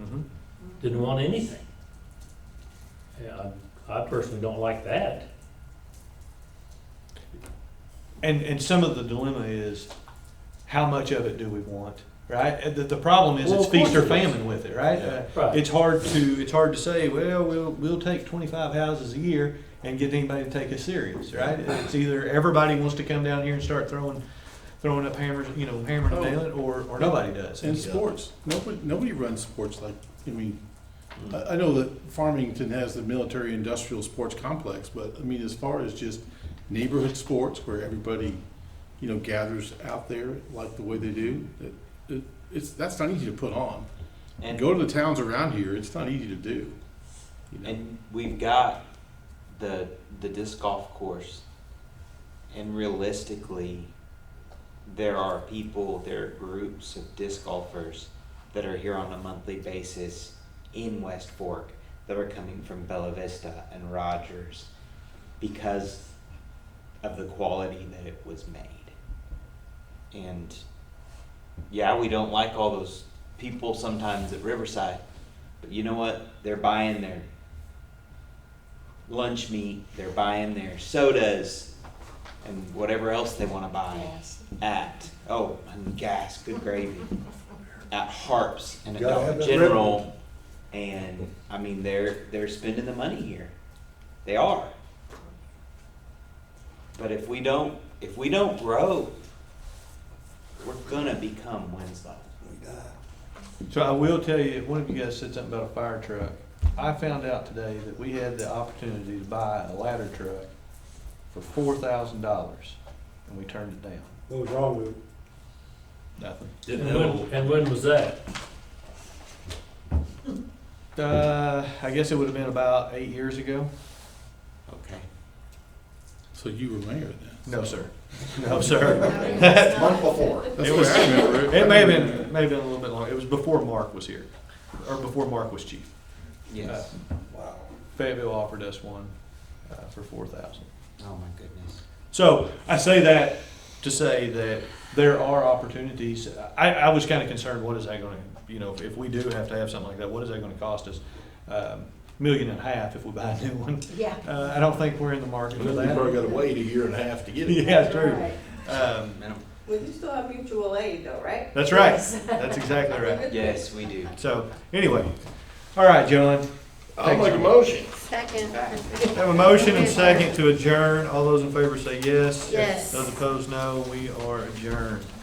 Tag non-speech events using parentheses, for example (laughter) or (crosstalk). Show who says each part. Speaker 1: Mm-hmm. didn't want anything. Yeah, I I personally don't like that.
Speaker 2: And, and some of the dilemma is, how much of it do we want, right? And The, the problem is,
Speaker 1: Well,
Speaker 2: it's
Speaker 1: of course
Speaker 2: feast or
Speaker 1: it is.
Speaker 2: famine with it, right? Uh,
Speaker 1: Right.
Speaker 2: It's hard to, it's hard to say, well, we'll, we'll take twenty-five houses a year and get anybody to take us serious, right? It's either everybody wants to come down here and start throwing, throwing up hammers, you know, hammering and
Speaker 3: Oh.
Speaker 2: nailing, or, or nobody does.
Speaker 3: And sports, nobody, nobody runs sports like, I mean,
Speaker 4: Hmm.
Speaker 3: I, I know that Farmington has the military industrial sports complex, but I mean, as far as just neighborhood sports where everybody, you know, gathers out there like the way they do, it, it, it's, that's not easy to put on.
Speaker 4: And,
Speaker 3: Go to the towns around here, it's not easy to do. you know.
Speaker 4: and we've got the the disc golf course, and realistically, there are people, there are groups of disc golfers that are here on a monthly basis in West Fork that are coming from Bella Vista and Rogers because of the quality that it was made. And yeah, we don't like all those people sometimes at Riverside, but you know what? They're buying their lunch meat, they're buying their sodas, and whatever else they want to buy at oh and gas, good gravy, at Harps and
Speaker 5: Gotta have
Speaker 4: Adult
Speaker 5: that
Speaker 4: General, and I mean they're they're spending the money here, they are. But if we don't if we don't grow, we're gonna become Winslow.
Speaker 2: So I will tell you, one of you guys said something about a fire truck. I found out today that we had the opportunity to buy a ladder truck for four thousand dollars, and we turned it down.
Speaker 5: What was wrong with it?
Speaker 2: Nothing.
Speaker 1: And when- And when was that?
Speaker 2: Uh, I guess it would have been about eight years ago.
Speaker 4: Okay.
Speaker 3: So you were mayor then?
Speaker 2: No, sir. (laughs) No, (laughs) sir.
Speaker 5: Month before.
Speaker 3: That's
Speaker 2: It
Speaker 3: what I remember.
Speaker 2: It may have been, may have been a little bit longer. It was before Mark was here, or before Mark was chief.
Speaker 4: Yes.
Speaker 5: Wow.
Speaker 2: Fayetteville offered us one, uh, for four thousand.
Speaker 4: Oh my goodness.
Speaker 2: So I say that to say that there are opportunities. I, I was kind of concerned, what is that going to, you know, if we do have to have something like that, what is that going to cost us? Um, Million and a half if we buy a new one.
Speaker 6: Yeah.
Speaker 2: Uh, I don't think we're in the market for
Speaker 5: (laughs)
Speaker 2: that.
Speaker 5: gotta wait a year and a half to get
Speaker 2: Yeah,
Speaker 6: Right.
Speaker 2: true. Um,
Speaker 4: Minimum.
Speaker 7: Well, you still have mutual aid though, right?
Speaker 2: that's right. That's exactly right.
Speaker 4: Yes, we do.
Speaker 2: So anyway, all right, John.
Speaker 5: I'll make a motion.
Speaker 6: Second.
Speaker 2: Have a motion and second to adjourn. All those in favor say yes.
Speaker 6: Yes.
Speaker 2: Those opposed, no. We are adjourned.